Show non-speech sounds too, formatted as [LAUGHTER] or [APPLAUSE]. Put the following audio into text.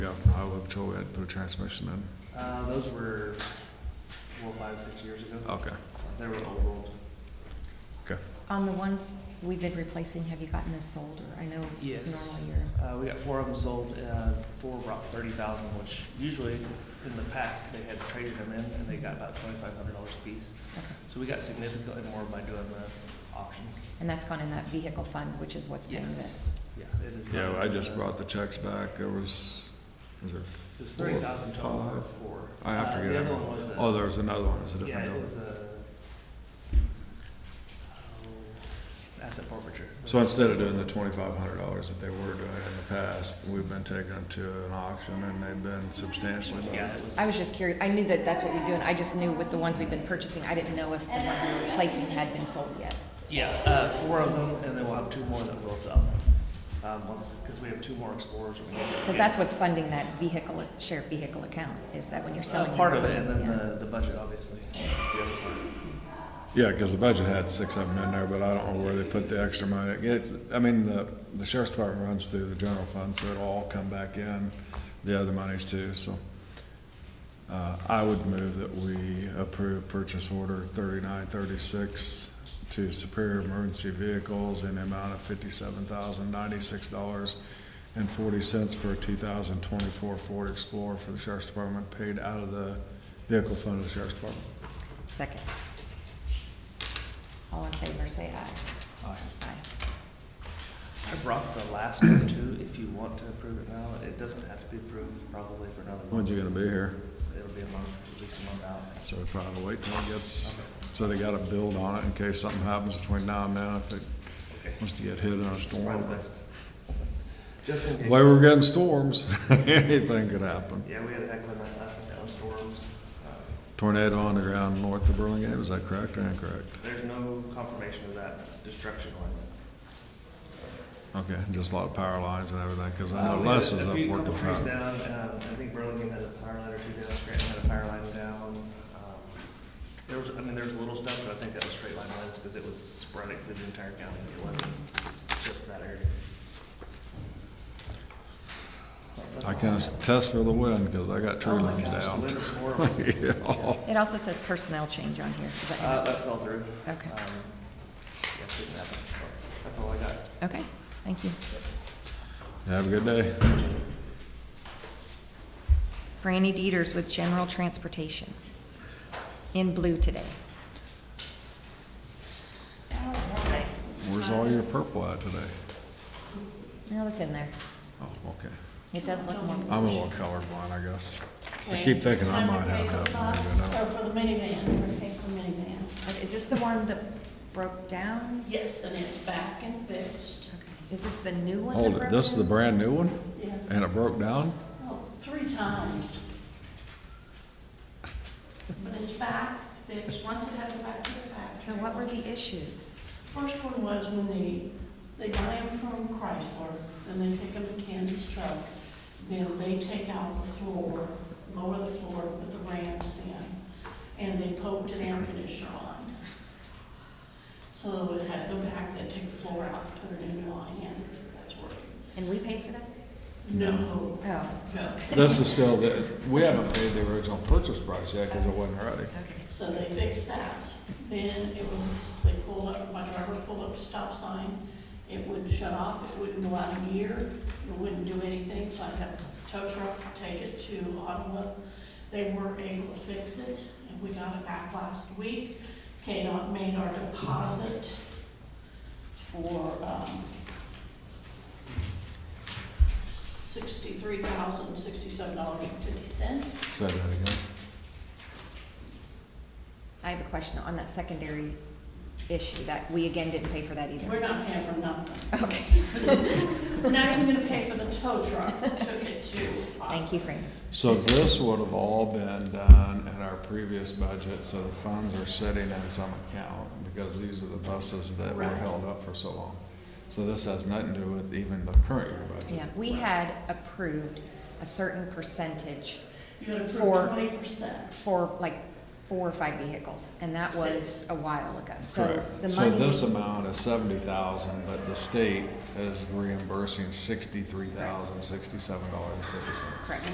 Yeah, I would totally, I'd put a transmission in. Uh, those were four, five, six years ago. Okay, They were old. okay. On the ones we've been replacing, have you gotten those sold, or I know Yes. normally you're, Uh, we got four of them sold, uh, four were about thirty thousand, which usually in the past, they had traded them in and they got about twenty-five hundred dollars a piece. okay. So we got significantly more by doing the auction. And that's gone in that vehicle fund, which is what's paying this? Yes, yeah, it is. Yeah, I just Uh, brought the checks back, there was, was there? It was four, thirty thousand total for five? four. I- I Uh, forget. The other one was a. Oh, there was another one, it's a Yeah, different it deal. was a, oh, asset forfeiture. So instead of doing the twenty-five hundred dollars that they were doing in the past, we've been taking them to an auction and they've been substantially Yeah, better. it was. I was just curious, I knew that that's what we're doing, I just knew with the ones we've been purchasing, I didn't know if the ones we were replacing had been sold yet. Yeah, uh, four of them, and then we'll have two more that will sell. Um, once, because we have two more explorers. Because that's what's funding that vehicle, shared vehicle account, is that when you're selling? Uh, part of them? it, and then Yeah. the, the budget, obviously. is the other part. Yeah, cause the budget had six of them in there, but I don't know where they put the extra money. It's, I mean, the, the sheriff's department runs through the general fund, so it'll all come back in, the other monies too, so. Uh, I would move that we approve purchase order thirty-nine thirty-six to Superior Emergency Vehicles in the amount of fifty-seven thousand ninety-six dollars and forty cents for a two thousand twenty-four Ford Explorer for the sheriff's department, paid out of the vehicle fund of the sheriff's department. Second. All in favor, say aye. Aye. Aye. I brought the last one too, if you want to approve it now. It doesn't have to be approved probably for another month. When's he gonna be here? It'll be a month, at least a month out. So we probably wait till it gets, so they gotta build on it in case something happens between now and then if it Okay. wants to get hit in a Right storm. away. Just in The case. Way we're getting storms, [LAUGHS] anything could happen. Yeah, we had a heck of a night last night, on storms. Uh, Tornado on the ground north of Burlingame, is that correct or incorrect? There's no confirmation of that destruction wise. Okay, just a lot of power lines and everything, cause I Uh, know we had Les is a up few- working couple trees power. down, um, I think Burlington had a power line or two down, Scranton had a power line down. um, There was, I mean, there was little stuff, but I think that was straight line lines, because it was sporadic through the entire county, it wasn't just that area. That's I all can have. attest for the wind, cause I got tree Oh my limbs gosh, the down. wind was horrible. [LAUGHS] Yeah. It also says personnel change on here. Does that- Uh, that fell through. Okay. Um, Yeah, it didn't happen, so, that's all I got. Okay, thank you. Have a good day. Franny Dieters with General Transportation, in blue today. Where's all your purple at today? No, it's in there. Oh, okay. It does look more. I'm a little colorblind, I guess. I Okay. keep thinking I Time to might pay have for that. the one, bus but I don't. Or for the minivan, we're paying for minivan. Okay, Is this the one that broke down? Yes, and it's back and fixed. Okay. Is this the new one? that Hold it, broke this is the down? brand new one? Yeah, And it broke down? oh, three times. But it's back fixed, once it had it back to the back. So what were the issues? First one was when they, they buy them from Chrysler, and they pick up a Kansas truck. Then they take out the floor, lower the floor, put the ramps in, and they poked an air conditioner line. So it had to go back, they take the floor out, put a new line in, that's working. And we paid for that? No, Oh, no. This is still, the we haven't paid the original purchase price yet because it wasn't ready. okay. So they fixed that. Then it was, they pulled up, my driver pulled up a stop sign. It wouldn't shut off, it wouldn't go out a gear, it wouldn't do anything, so I had a tow truck take it to Ottawa. They weren't able to fix it, and we got it back last week. KDOT made our deposit for, um, sixty-three thousand, sixty-seven dollars and fifty cents. Say that again. I have a question on that secondary issue, that we again didn't pay for that We're either. not paying for nothing. Okay, We're not even gonna pay for the tow truck that took it to. uh, thank you, Franny. So this would have all been done in our previous budget, so the funds are sitting in some account because these are the buses that were Right. held up for so long. So this has nothing to do with even the current year budget. Yeah, we had approved a certain percentage You gotta For- approve twenty percent. for like four or five vehicles, and that was a while ago. So Correct. the So money, this amount is seventy thousand, but the state is reimbursing sixty-three thousand, sixty-seven dollars and fifty cents. correct.